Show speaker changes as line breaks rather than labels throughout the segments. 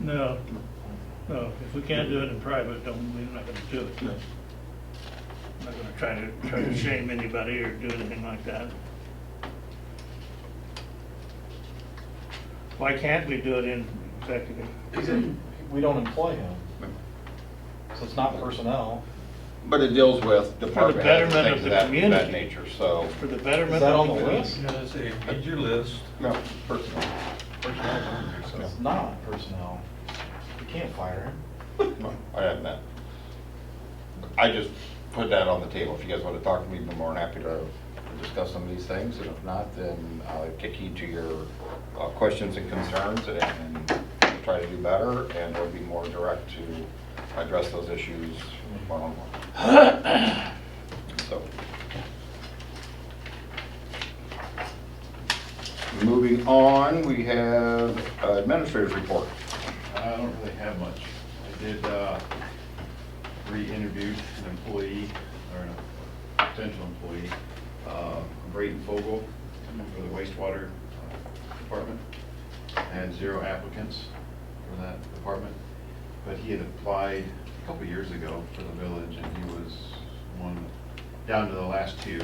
No, no, if we can't do it in private, don't, we're not gonna do it. I'm not gonna try to, try to shame anybody or do anything like that. Why can't we do it in executive?
He's in, we don't employ him, so it's not personnel.
But it deals with department heads and
betterment
things of
of the
that, that
community.
nature, so,
For the
Is
betterment
that on
of
the
the
list?
community?
I say, read your list.
no, personnel. Personnel is on there,
It's not personnel. You can't fire him.
so, no, I have that. I just put that on the table. If you guys want to talk to me, I'd be more than happy to discuss some of these things, and if not, then I'll kick you to your uh, questions and concerns and and try to do better, and we'll be more direct to address those issues one-on-one. So. Moving on, we have uh, administrator's report.
I don't really have much. I did, uh, re-interview an employee, or a potential employee, uh, Braden Fogel, for the wastewater uh, department. I had zero applicants for that department, but he had applied a couple years ago for the village, and he was one, down to the last two,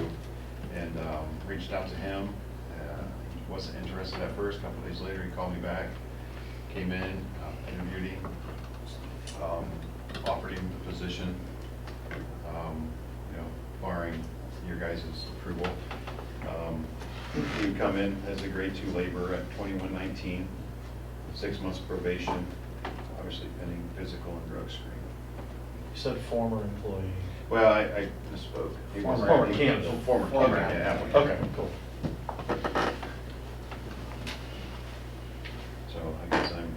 and um, reached out to him. Uh, He Wasn't interested at first, a couple days later, he called me back, came in, uh, interviewed him, um, offered him the position, um, you know, barring your guys' approval. Um, He would come in as a grade two laborer at twenty-one nineteen, six months probation, obviously pending physical and drug screen.
You said former employee.
Well, I I misspoke. He was-
Former candidate.
Former candidate, yeah, applicant.
Okay, cool.
So I guess I'm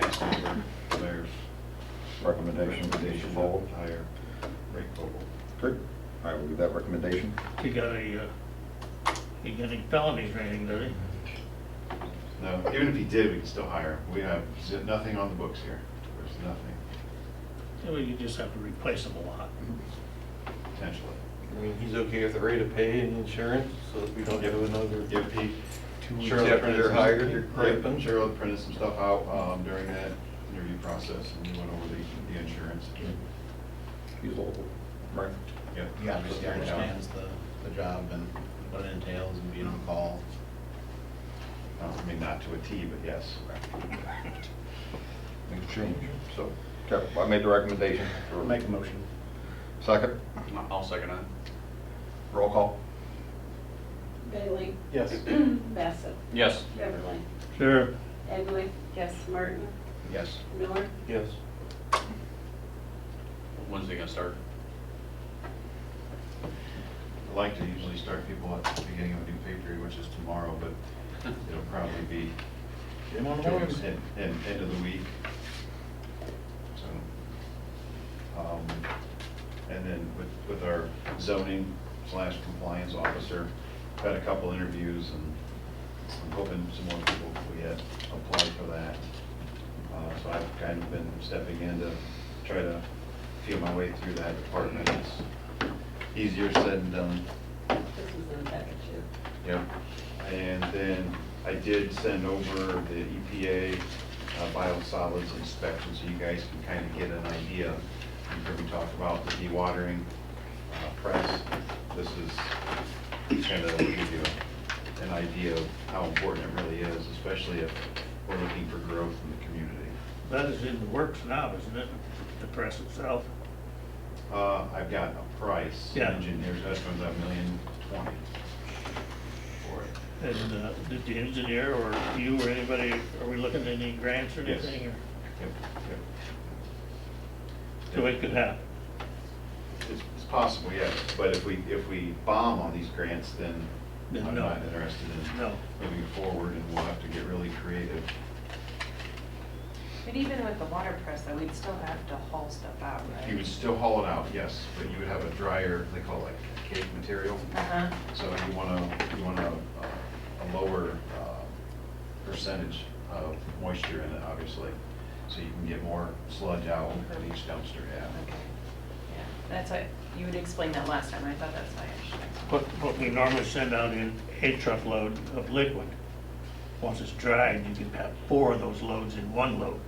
asking for mayor's
Recommendation,
recommendation
Fogle.
to hire Ray Vogel.
Great. I will give that recommendation.
He got a, uh, he got any felonies or anything, does he?
No, even if he did, we can still hire him. We have z- nothing on the books here. There's nothing,
Well, you just have to replace him a lot.
potentially.
I mean, he's okay with the rate of pay and insurance, so that we don't have another
If he,
two weeks
Cheryl
after
printed
they're
some-
hired, they're
Right,
griping.
Cheryl printed some stuff out um, during that interview process and we went over the, the insurance.
He's local. Right.
Yeah.
He obviously understands the, the job and what it entails and being on call.
I mean, not to a T, but yes.
Make a change. So, okay, well, I made the recommendation.
Make a motion.
Second,
I'll second it.
roll call.
Bailey?
Yes.
Bassett?
Yes.
Beverly?
Sure.
Egley? Yes. Martin?
Yes.
Miller?
Yes.
When's he gonna start?
I like to usually start people at the beginning of a new pay period, which is tomorrow, but it'll probably be
Get him on the
towards
board.
end, end end of the week. So, um, and then with, with our zoning slash compliance officer, had a couple interviews and I'm hoping some more people will yet apply for that. Uh, so I've kind of been stepping in to try to feel my way through that department. It's easier said than done.
This is in the package, yeah.
Yeah, and then I did send over the EPA uh, biosolids inspection, so you guys can kind of get an idea. You've heard me talk about the dewatering uh, press. This is kind of give you an idea of how important it really is, especially if we're looking for growth in the community.
That is in the works now, isn't it? The press itself.
Uh, I've got a price,
Yeah.
engineer's estimate of a million twenty for it.
And uh, did the engineer or you or anybody, are we looking at any grants or
Yes.
anything? or-
Yep, yep.
So it could happen.
It's it's possible, yes, but if we, if we bomb on these grants, then
Then
I'm
no.
not interested in
No.
moving forward, and we'll have to get really creative.
But even with the water press, though, we'd still have to haul stuff out, right?
You would still haul it out, yes, but you would have a drier, they call it like cake material,
Uh-huh.
so you want to, you want a, a lower uh, percentage of moisture in it, obviously, so you can get more sludge out at each dumpster, yeah.
Okay. Yeah, that's what, you would explain that last time, I thought that's why I should explain.
What, what we normally send out in a truckload of liquid. Once it's dried, you can have four of those loads in one load.